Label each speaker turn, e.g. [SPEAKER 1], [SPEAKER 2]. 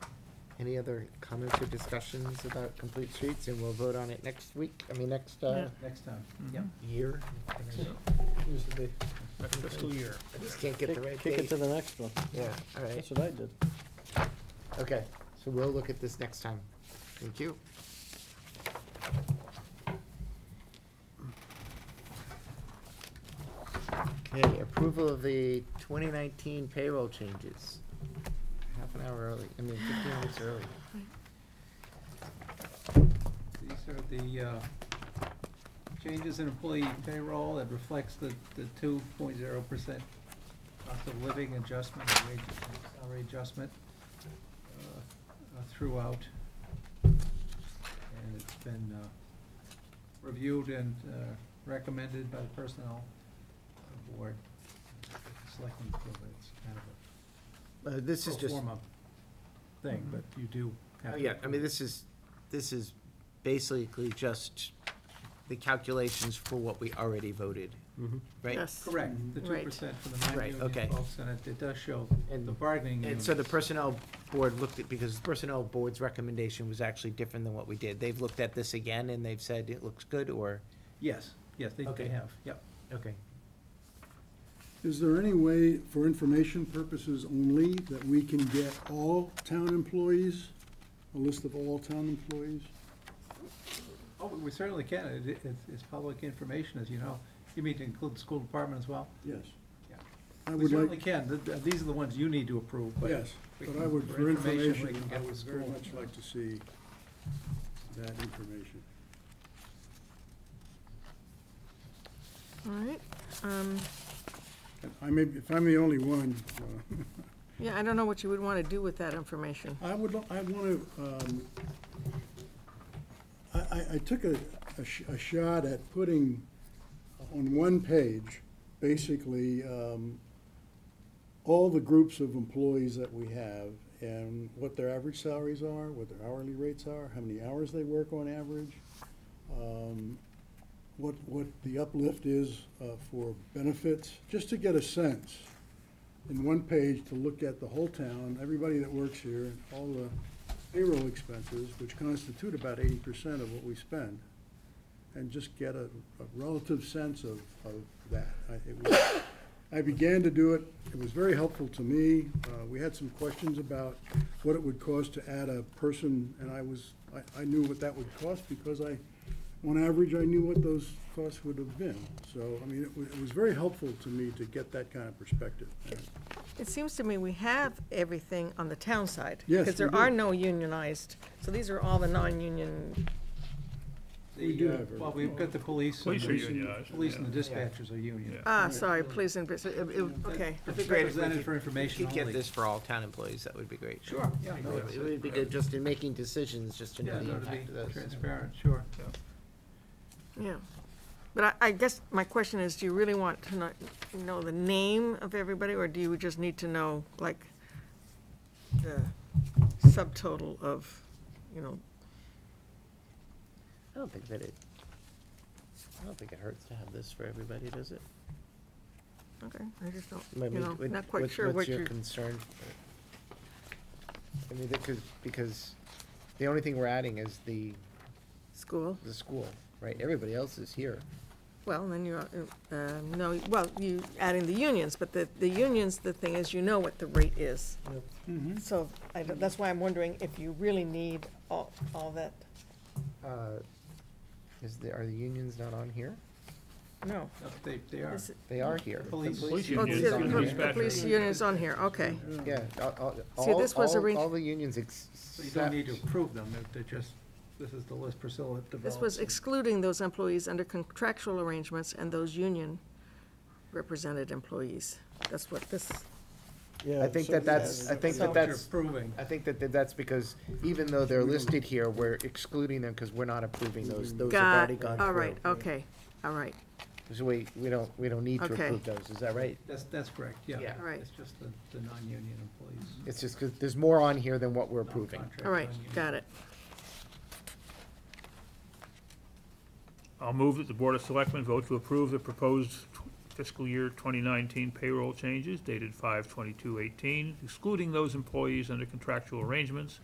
[SPEAKER 1] Any other comments or discussions about complete streets, and we'll vote on it next week, I mean, next, uh,
[SPEAKER 2] Next time,
[SPEAKER 3] Yep.
[SPEAKER 1] year?
[SPEAKER 2] This is the-
[SPEAKER 3] Next fiscal year.
[SPEAKER 1] I just can't get the right
[SPEAKER 2] Kick it
[SPEAKER 1] date.
[SPEAKER 2] to the next one.
[SPEAKER 1] Yeah, all right,
[SPEAKER 2] That's what I did.
[SPEAKER 1] okay, so we'll look at this next time. Thank you. Okay, approval of the twenty nineteen payroll changes. Half an hour early, I mean, fifteen minutes early.
[SPEAKER 4] These are the uh, changes in employee payroll that reflects the, the two point zero percent cost of living adjustment, and wage, salary adjustment uh, uh, throughout. And it's been uh, reviewed and uh, recommended by the personnel board. Selectmen feel that it's kind of
[SPEAKER 1] Uh, this
[SPEAKER 4] a
[SPEAKER 1] is
[SPEAKER 4] pro
[SPEAKER 1] just. Mm-hmm.
[SPEAKER 4] forma thing, but you do have.
[SPEAKER 1] Oh,
[SPEAKER 4] to
[SPEAKER 1] Yeah, I mean,
[SPEAKER 4] approve.
[SPEAKER 1] this is, this is basically just the calculations for what we already voted,
[SPEAKER 4] Mm-hmm.
[SPEAKER 1] right?
[SPEAKER 5] Yes.
[SPEAKER 4] Correct, the two
[SPEAKER 5] Right.
[SPEAKER 4] percent for the
[SPEAKER 1] Right, okay.
[SPEAKER 4] non-union folks, and it, it does show
[SPEAKER 1] And-
[SPEAKER 4] the bargaining
[SPEAKER 1] And
[SPEAKER 4] units.
[SPEAKER 1] so the Personnel Board looked at, because the Personnel Board's recommendation was actually different than what we did. They've looked at this again and they've said it looks good or,
[SPEAKER 4] Yes, yes, they,
[SPEAKER 1] Okay.
[SPEAKER 4] they have, yep.
[SPEAKER 1] okay.
[SPEAKER 6] Is there any way, for information purposes only, that we can get all town employees, a list of all town employees?
[SPEAKER 4] Oh, we certainly can, it, it- it's, it's public information, as you know. You mean to include the school department as well?
[SPEAKER 6] Yes.
[SPEAKER 4] Yeah.
[SPEAKER 6] I
[SPEAKER 4] We
[SPEAKER 6] would
[SPEAKER 4] certainly
[SPEAKER 6] like,
[SPEAKER 4] can, Th- th- these are the ones you need to approve, but.
[SPEAKER 6] yes,
[SPEAKER 4] we
[SPEAKER 6] but
[SPEAKER 4] can-
[SPEAKER 6] I would, for
[SPEAKER 4] we
[SPEAKER 6] information,
[SPEAKER 4] can
[SPEAKER 6] I
[SPEAKER 4] get
[SPEAKER 6] would
[SPEAKER 4] the
[SPEAKER 6] very
[SPEAKER 4] school.
[SPEAKER 6] much like to see that information.
[SPEAKER 5] All right, um,
[SPEAKER 6] And I may, if I'm the only one, uh,
[SPEAKER 5] yeah, I don't know what you would want to do with that information.
[SPEAKER 6] I would, lo- I want to, um, I, I, I took a, a sh- a shot at putting on one page, basically, um, all the groups of employees that we have and what their average salaries are, what their hourly rates are, how many hours they work on average, um, what, what the uplift is, uh, for benefits, just to get a sense in one page to look at the whole town, everybody that works here, and all the payroll expenses, which constitute about eighty percent of what we spend, and just get a, a relative sense of, of that. I, it was, I began to do it, it was very helpful to me, uh, we had some questions about what it would cost to add a person, and I was, I, I knew what that would cost, because I, on average, I knew what those costs would have been, so, I mean, it was, it was very helpful to me to get that kind of perspective. And
[SPEAKER 5] It seems to me we have everything on the town side.
[SPEAKER 6] Yes,
[SPEAKER 5] Because
[SPEAKER 6] we
[SPEAKER 5] there are
[SPEAKER 6] do.
[SPEAKER 5] no unionized, so these are all the non-union,
[SPEAKER 6] We
[SPEAKER 4] The,
[SPEAKER 6] do
[SPEAKER 4] uh,
[SPEAKER 6] have
[SPEAKER 4] Well, we've got the police. and
[SPEAKER 3] Police
[SPEAKER 4] the-
[SPEAKER 3] are unionized,
[SPEAKER 4] Police and the
[SPEAKER 1] yeah. Yeah.
[SPEAKER 4] dispatchers are union.
[SPEAKER 5] ah, sorry, please, and bus- uh, uh,
[SPEAKER 4] That-
[SPEAKER 5] okay.
[SPEAKER 4] that's
[SPEAKER 1] be great if we
[SPEAKER 4] Represented
[SPEAKER 1] could-
[SPEAKER 4] for
[SPEAKER 1] If you
[SPEAKER 4] information
[SPEAKER 1] could
[SPEAKER 4] only.
[SPEAKER 1] get this for all town employees, that would be great.
[SPEAKER 4] Sure, yeah, no,
[SPEAKER 1] It
[SPEAKER 4] it's-
[SPEAKER 1] would be good just in making decisions, just to
[SPEAKER 4] Yeah,
[SPEAKER 1] know the
[SPEAKER 4] no, to
[SPEAKER 1] impact of
[SPEAKER 4] be
[SPEAKER 1] those.
[SPEAKER 4] transparent, sure.
[SPEAKER 5] Yeah. But I, I guess my question is, do you really want to know, know the name of everybody, or do you just need to know, like, the subtotal of, you know,
[SPEAKER 1] I don't think that it, I don't think it hurts to have this for everybody, does it?
[SPEAKER 5] okay, I just don't,
[SPEAKER 1] I
[SPEAKER 5] you
[SPEAKER 1] mean,
[SPEAKER 5] know,
[SPEAKER 1] what-
[SPEAKER 5] not quite
[SPEAKER 1] what-
[SPEAKER 5] sure what
[SPEAKER 1] What's
[SPEAKER 5] you're.
[SPEAKER 1] your concern? I mean, because, because the only thing we're adding is the,
[SPEAKER 5] School.
[SPEAKER 1] the school, right? Everybody else is here.
[SPEAKER 5] Well, then you're, uh, uh, no, well, you adding the unions, but the, the unions, the thing is, you know what the rate is.
[SPEAKER 4] Mm-hmm.
[SPEAKER 5] So I, don't- that's why I'm wondering if you really need all, all that,
[SPEAKER 1] Uh, Is the, are the unions not on here?
[SPEAKER 5] no.
[SPEAKER 4] No, They, they are.
[SPEAKER 5] This-
[SPEAKER 1] They are here. The
[SPEAKER 4] Police. Police
[SPEAKER 5] oh,
[SPEAKER 1] is
[SPEAKER 5] it's-
[SPEAKER 1] on
[SPEAKER 3] union.
[SPEAKER 1] here.
[SPEAKER 5] The police union is on here, okay.
[SPEAKER 1] Yeah, all, all,
[SPEAKER 5] See, this was
[SPEAKER 1] all-
[SPEAKER 5] orig-
[SPEAKER 1] all the unions
[SPEAKER 4] So you don't need to
[SPEAKER 1] except,
[SPEAKER 4] approve them, they're- they're just, this is the list Priscilla developed.
[SPEAKER 5] This was
[SPEAKER 4] and-
[SPEAKER 5] excluding those employees under contractual arrangements and those union represented employees. That's what this,
[SPEAKER 1] I think that that's, I think
[SPEAKER 4] So
[SPEAKER 1] that
[SPEAKER 4] what you're
[SPEAKER 1] that's,
[SPEAKER 4] Approving,
[SPEAKER 1] I think that that that's because even though they're listed here, we're excluding them because we're not approving those. Those have
[SPEAKER 5] got,
[SPEAKER 1] already gone through.
[SPEAKER 5] all right, okay, all right,
[SPEAKER 1] So we, we don't, we don't need to
[SPEAKER 5] Okay.
[SPEAKER 1] approve those, is that right?
[SPEAKER 4] that's, that's correct, yeah.
[SPEAKER 1] Yeah.
[SPEAKER 5] Right.
[SPEAKER 4] It's just the, the non-union employees.
[SPEAKER 1] It's just 'cause there's more on here than what we're approving.
[SPEAKER 4] non-contract,
[SPEAKER 5] all right,
[SPEAKER 4] non-union.
[SPEAKER 5] got it.
[SPEAKER 3] I'll move that the Board of Selectmen vote to approve the proposed fiscal year 2019 payroll changes dated 5/22/18, excluding those employees under contractual arrangements